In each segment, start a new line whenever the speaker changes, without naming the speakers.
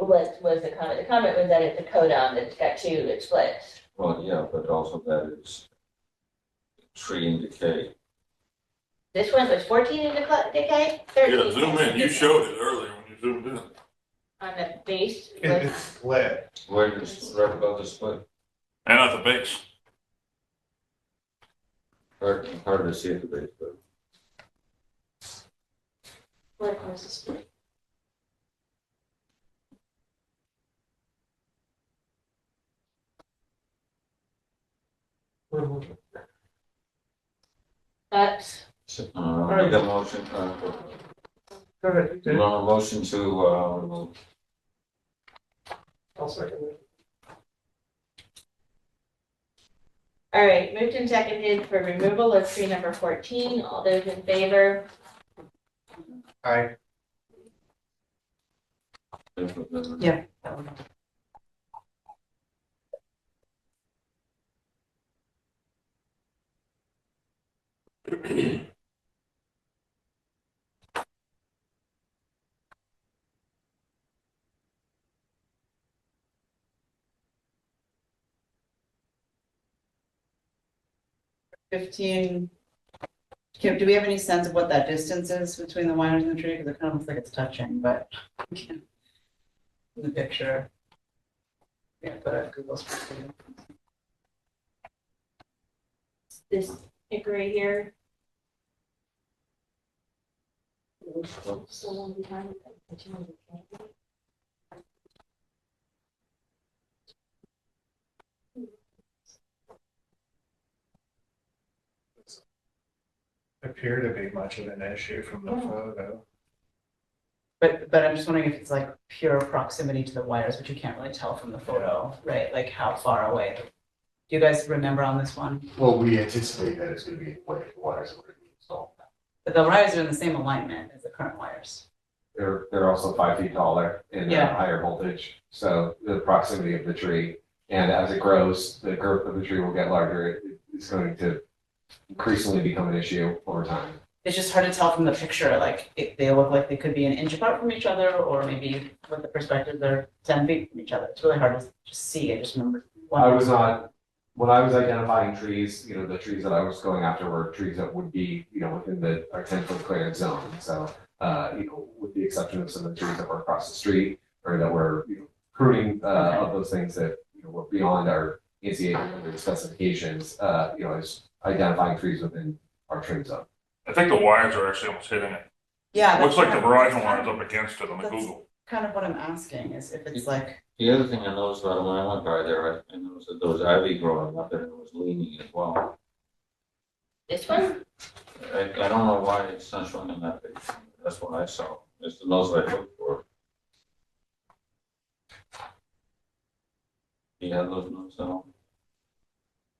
splits was the comment. The comment was that it's a codon that's got two, it splits.
Well, yeah, but also that is tree and decay.
This one was fourteen in the decay, thirteen.
Yeah, zoom in, you showed it earlier when you zoomed in.
On the base.
It- It's split.
Where is, right above the split,
And at the base,
hard, hard to see at the base, but
What was the split? That's,
uh, I make a motion, uh, you want a motion to, uh, remove-
I'll second it.
all right, moved and seconded for removal of tree number fourteen. All those in favor?
Aye.
Yeah. Fifteen, Kim, do we have any sense of what that distance is between the wires and the tree? Because it kind of looks like it's touching, but we can't in the picture. Yeah, but I Google's.
This pick right here.
Appear to be much of an issue from the
Oh.
Yeah.
photo.
But, but I'm just wondering if it's like pure proximity to the wires, which you can't really tell from the photo, right? Like how far away? Do you guys remember on this one?
Well, we anticipate that it's gonna be away from the wires, we're gonna be installed.
But the wires are in the same alignment as the current wires.
They're, they're also five feet taller and they're
Yeah.
higher voltage, so the proximity of the tree. And as it grows, the girth of the tree will get larger, It- it's going to increasingly become an issue over time.
It's just hard to tell from the picture, like if they look like they could be an inch apart from each other, or maybe with the perspective, they're ten feet from each other. It's really hard to just see. I just remember.
I
Uh,
was not, when I was identifying trees, you know, the trees that I was going after were trees that would be, you know, within the, our ten foot clearance zone, so. Uh, you know, with the exception of some of the trees that were across the street, or that were, you know, pruning, uh, of those things that, you know, were beyond our. NCAA specifications, uh, you know, is identifying trees within our trim zone.
I think the wires are actually almost hitting it.
Yeah.
Looks like
that's
the
kind of- that's
Verizon
kind
wire's
of-
up against it on the
That's-
Google.
Kind of what I'm asking is if it's like
the other thing I noticed about it when I went by there, I I noticed that there was ivy growing up and it was leaning as well.
This one?
I, I don't know why it's not showing in that picture, that's what I saw, it's the most I looked for. Do you have those notes at all?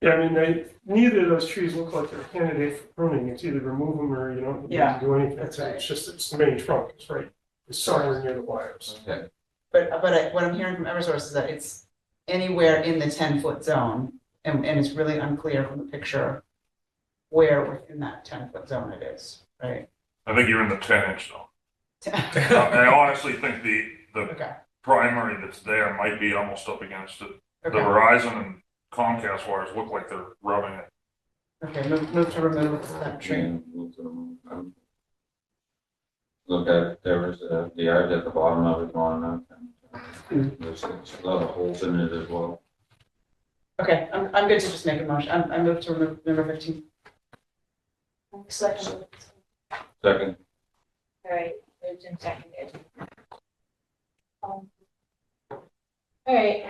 Yeah, I mean, they, neither of those trees look like they're candidate for pruning. It's either remove them or you don't need
Yeah,
to do anything.
that's right.
It's just, it's the main trunk, it's right, it's somewhere near the wires.
Okay.
But, but I- what I'm hearing from Eversource is that it's anywhere in the ten-foot zone, and, and it's really unclear from the picture where within that ten-foot zone it is, right?
I think you're in the ten inch though.
Okay,
I honestly think the, the primary that's there might be almost up against it. The
okay,
Verizon and Comcast wires look like they're rubbing it.
okay, move, move to remove that tree.
Yeah, move to the moon. Um, Look at, there was uh, the ivy at the bottom of it going up. and uh, There's there's a lot of holes in it as well.
Okay, I'm, I'm good to just make a motion, I'm, I move to remove number fifteen.
Selection.
Second,
All right, moved and seconded. Um, All right,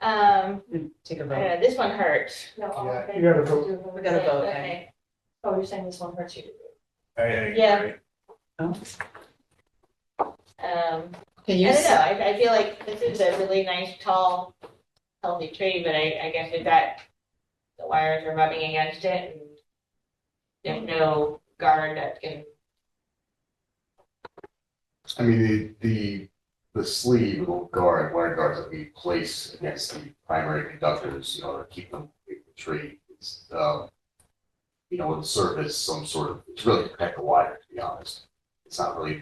um,
mm, Take a vote.
uh, this one hurts.
Yeah, you gotta vote.
We gotta vote,
Okay. Oh, you're saying this one hurts you?
I- I agree.
Yeah.
Oh.
Um,
Can
I
you,
don't know,
s-
I, I feel like this is a really nice, tall, healthy tree, but I, I guess it got, the wires are rubbing against it and there's no guard that can,
I mean, the, the, the sleeve, little guard, wire guards that we place against the primary conductors, you know, to keep them away from the tree. It's, uh, you know, would serve as some sort of, it's really to protect the wire, to be honest. It's not really